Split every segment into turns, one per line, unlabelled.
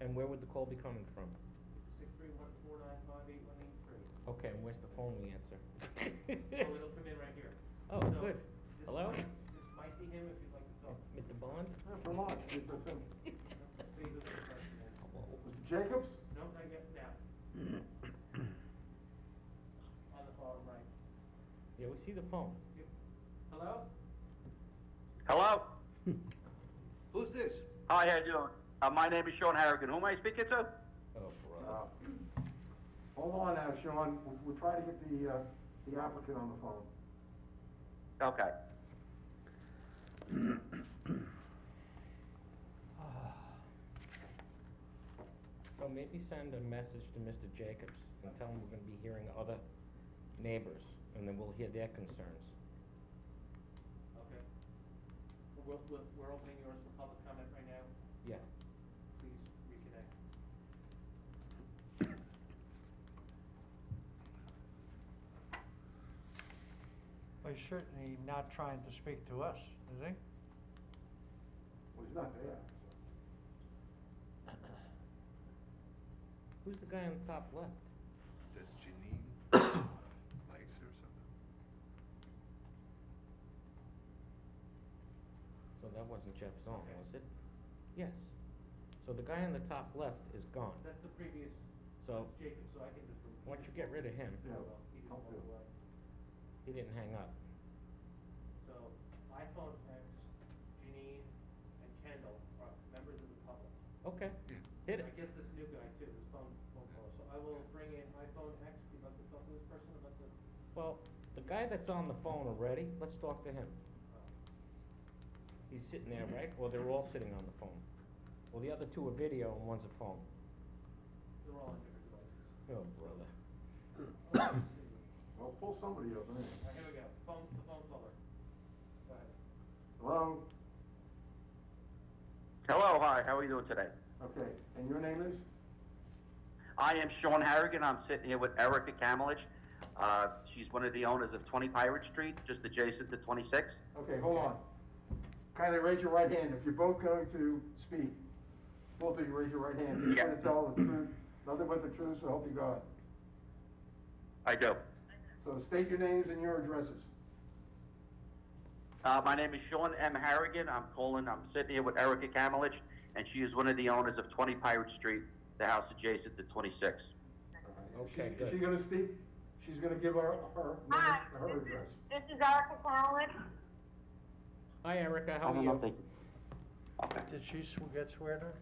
And where would the call be coming from?
It's six three one four nine five eight one eight three.
Okay, and where's the phone we answer?
So Oh, it'll come in right here.
Oh,
So
good.
this
Hello?
might- This might be him if you'd like to talk.
Mr. Bond?
Oh,
Come on, Mr. Sim-
See who the person is.
Mr. Jacobs?
No, not yet, now. On the bottom right.
Yeah, we see the phone.
Yep. Hello?
Hello?
Who's this?
Hi, how you doing? Uh, my name is Sean Harrigan. Who am I speaking to?
Oh,
Uh,
bro.
Hold on now, Sean, We- we're trying to get the, uh, the applicant on the phone.
Okay.
So maybe send a message to Mr. Jacobs and tell him we're gonna be hearing other neighbors, and then we'll hear their concerns.
Okay. We're, we're, we're opening yours for public comment right now.
Yeah.
Please reconnect.
Well, he's certainly not trying to speak to us, is he?
Well, he's not there.
Who's the guy on the top left?
That's Janine Lights or something.
So that wasn't Jeff Zone, was it? Yes. So the guy on the top left is gone.
That's the previous,
So,
that's Jacob, so I can just. remove-
why don't you get rid of him?
Yeah.
Well, He didn't walk away.
He didn't hang up.
So iPhone X, Janine, and Kendall are members of the public.
Okay,
Yeah.
hit
I
it.
guess this new guy too, this phone, phone call, so I will bring in iPhone X, you'd like to talk to this person about the,
Well, the guy that's on the phone already, let's talk to him.
uh,
He's sitting there, right? Or they're all sitting on the phone. Well, the other two are video and one's a phone.
they're all on different devices.
Oh, brother.
Alright,
Well, pull somebody up, anyway.
here we go, phone, the phone caller. Go ahead.
Hello?
Hello, hi, how are you doing today?
Okay, and your name is?
I am Sean Harrigan. I'm sitting here with Erica Kamelich. Uh, she's one of the owners of 20 Pirate Street, just adjacent to 26.
Okay, hold on. Kindly raise your right hand, if you're both going to speak, both of you raise your right hand. You're
Yeah.
gonna tell the truth, nothing but the truth, so help you God.
I do.
So state your names and your addresses.
Uh, my name is Sean M. Harrigan. I'm calling. I'm sitting here with Erica Kamelich, and she is one of the owners of 20 Pirate Street, the house adjacent to 26.
Is she-
Okay, good.
Is she gonna speak? She's gonna give our, her,
Hi,
her
this
address.
is, this is Erica Cowan.
Hi, Erica,
I
how are
don't know if
you?
they- Okay.
Did she sw- get swear to?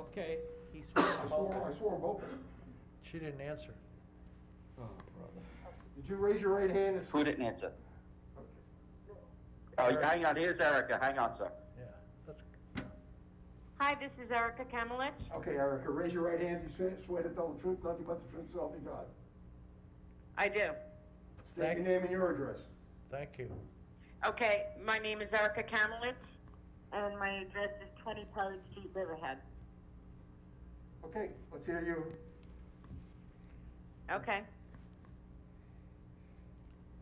Okay, he swore
I
to hold
swore, I swore both of them.
She didn't answer.
Oh, brother.
Did you raise your right hand and?
Who didn't answer?
Okay.
Oh, hang on. Here's Erica. Hang on, sir.
Yeah, that's,
Hi, this is Erica Kamelich.
Okay, Erica, raise your right hand, you swear- swear to tell the truth, nothing but the truth, so help you God.
I do.
State your name and your address.
thank you.
Okay, my name is Erica Kamelich, and my address is 20 Pirate Street, Riverhead.
Okay, let's hear you.
Okay.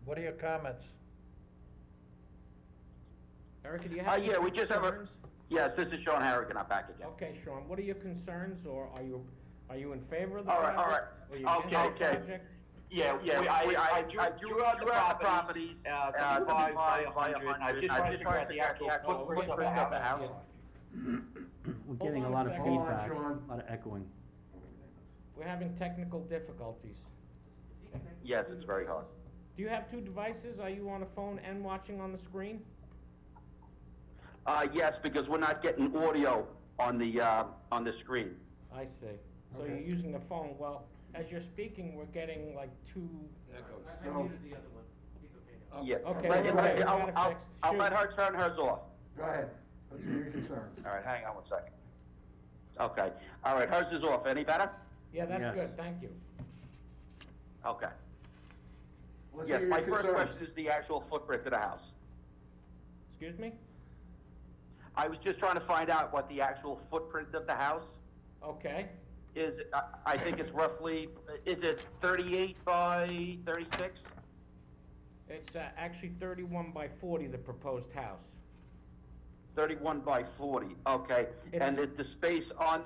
What are your comments?
Erica, do you
Uh,
have any
yeah, we just have a,
concerns?
yes, this is Sean Harrigan, I'm back again.
Okay, Sean, what are your concerns, or are you, are you in favor of the
All right,
project?
all
Or you against
right.
the
Okay, okay.
project?
Yeah, yeah, we- I, I drew, drew out the properties, uh, seventy-five by a hundred, and I just wanted to figure out the actual footprint of the house.
We're
Hold
getting
on
a
a
lot of
second. Hold
on,
feedback,
Sean.
a lot of echoing.
We're having technical difficulties.
Is he connected?
Yes, it's very hard.
Do you have two devices? Are you on a phone and watching on the screen?
Uh, yes, because we're not getting audio on the, uh, on the screen.
I see. So you're
Okay.
using the phone. Well, as you're speaking, we're getting like two,
Echoes.
I I
No.
muted the other one, he's okay now.
Yeah.
Oh, Okay,
Let-
okay,
let-
we got
I'll,
it
I'll,
fixed.
I'll
Shoot.
let her turn hers off.
Go ahead, let's hear your concerns.
All right, hang on one second. Okay, all right, hers is off. Any better?
yeah, that's
Yes.
good, thank you.
Okay.
Let's
Yes,
hear
my
your
first
concerns.
question is the actual footprint of the house.
Excuse me?
I was just trying to find out what the actual footprint of the house
Okay,
is. I- I think it's roughly, is it thirty-eight by thirty-six?
it's uh, actually thirty-one by forty, the proposed house.
Thirty-one by forty, okay. And the, the space on